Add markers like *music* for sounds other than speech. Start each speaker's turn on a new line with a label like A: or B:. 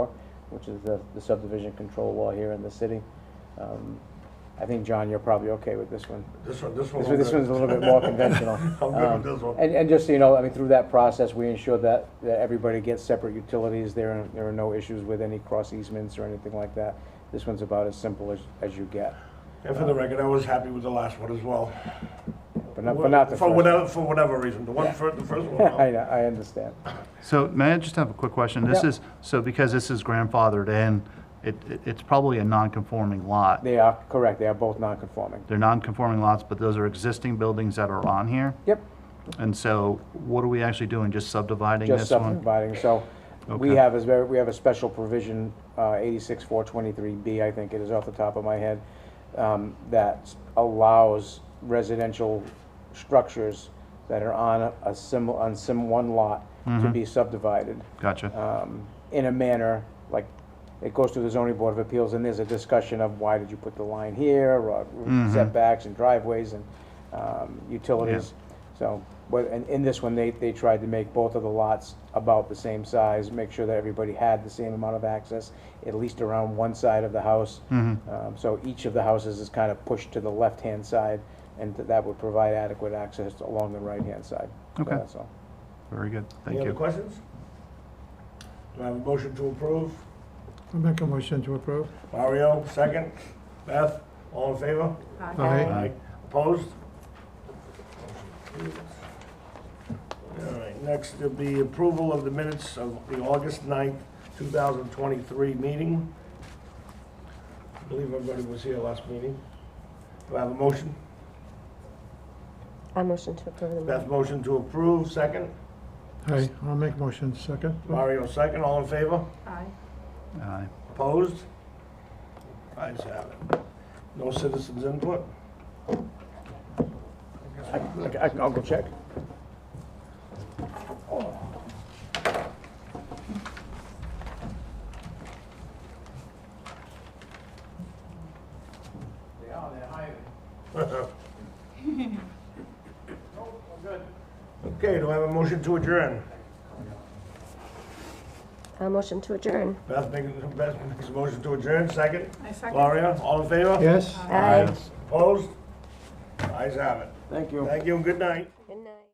A: which is the the subdivision control law here in the city. Um, I think, John, you're probably okay with this one.
B: This one, this one.
A: This one- this one's a little bit
B: *laughs*
A: more conventional.
B: I'm good with
A: Um,
B: this one.
A: And, and just so you know, I mean, through that process, we ensure that, that everybody gets separate utilities. There are, there are no issues with any cross easements or anything like that. This one's about as simple as, as you get,
B: And for the record, I was happy with the last one as well.
A: but not, but not the
B: For
A: first. one.
B: whatever, for whatever reason, the one for, the first
A: *laughs*
B: one. no.
A: I know, I understand.
C: So may I just have a quick question? This
A: Yeah.
C: is, so because this is grandfathered in, it, it- it's probably a non-conforming lot.
A: They are, correct, they are both non-conforming.
C: They're non-conforming lots, but those are existing buildings that are on here.
A: Yep,
C: And so what are we actually doing? Just subdividing
A: just
C: this one?
A: subdividing, so we
C: Okay.
A: have, a- we have a special provision, uh, eighty-six, four twenty-three B, I think it is off the top of my head, um, that allows residential structures that are on a- a sim, on sim one lot to
C: Mm-hmm.
A: be subdivided
C: Gotcha.
A: um, in a manner, like, it goes to the zoning board of appeals, and there's a discussion of why did you put the line here, or setbacks and driveways and um, utilities. So, but, and in this one, they, they tried to make both of the lots about the same size, make sure that everybody had the same amount of access, at least around one side of the house. Um, So each of the houses is kind of pushed to the left-hand side, and that would provide adequate access along the right-hand side. So
C: Okay.
A: That's all.
C: Very good.
B: Any
C: Thank
B: other
C: you.
B: questions? Do I have a motion to approve?
D: I make a motion to approve.
B: Mario, second. Beth, all in favor?
D: Aye.
B: Opposed? All right, next will be approval of the minutes of the August 9th, 2023 meeting. I believe everybody was here last meeting. Do I have a motion?
E: I motion to approve the
B: Beth,
E: minutes.
B: motion to approve, second.
D: Aye, I'll make motion second.
B: Mario, second. All in favor?
E: Aye.
C: Aye.
B: Opposed? Ayes have it. No citizens input? *laughs*
A: I- I- I'll go check.
B: They are, they're hiding. Okay, do I have a motion to adjourn?
E: I motion to adjourn.
B: Beth makes, Beth makes a motion to adjourn, second.
F: I second.
B: Gloria, all in favor?
D: Yes?
E: Aye.
B: Opposed? Ayes have it.
A: Thank you.
B: Thank you and good night.
E: Good night.